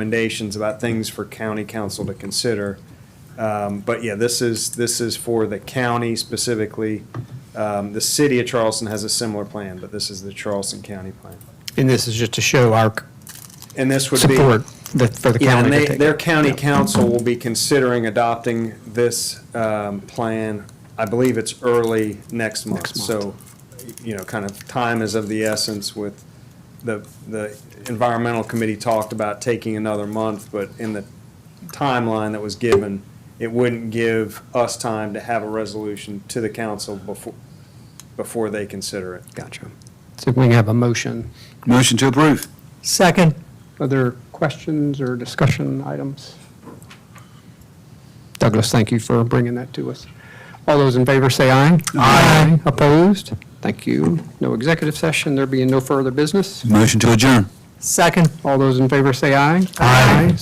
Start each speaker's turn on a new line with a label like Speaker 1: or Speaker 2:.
Speaker 1: recommendations about things for county council to consider. Um, But yeah, this is, this is for the county specifically. Um, The city of Charleston has a similar plan, but this is the Charleston County plan.
Speaker 2: And this is just to show our
Speaker 1: And this would be.
Speaker 2: support that- for the
Speaker 1: Yeah,
Speaker 2: county.
Speaker 1: and
Speaker 2: to
Speaker 1: they,
Speaker 2: take.
Speaker 1: their county
Speaker 2: Yeah.
Speaker 1: council will be considering adopting this um, plan. I believe it's early next month.
Speaker 2: Next
Speaker 1: So, you know, kind of time is of the essence with the, the environmental committee talked about taking another month, but in the timeline that was given, it wouldn't give us time to have a resolution to the council before, before they consider it.
Speaker 2: Gotcha. So we have a motion.
Speaker 3: Motion to approve.
Speaker 4: Second.
Speaker 2: Other questions or discussion items? Douglas, thank you for bringing that to us. All those in favor say aye. Aye. Opposed? Thank you. No executive session, there being no further business.
Speaker 3: Motion to adjourn.
Speaker 4: Second.
Speaker 2: All those in favor say aye. Aye.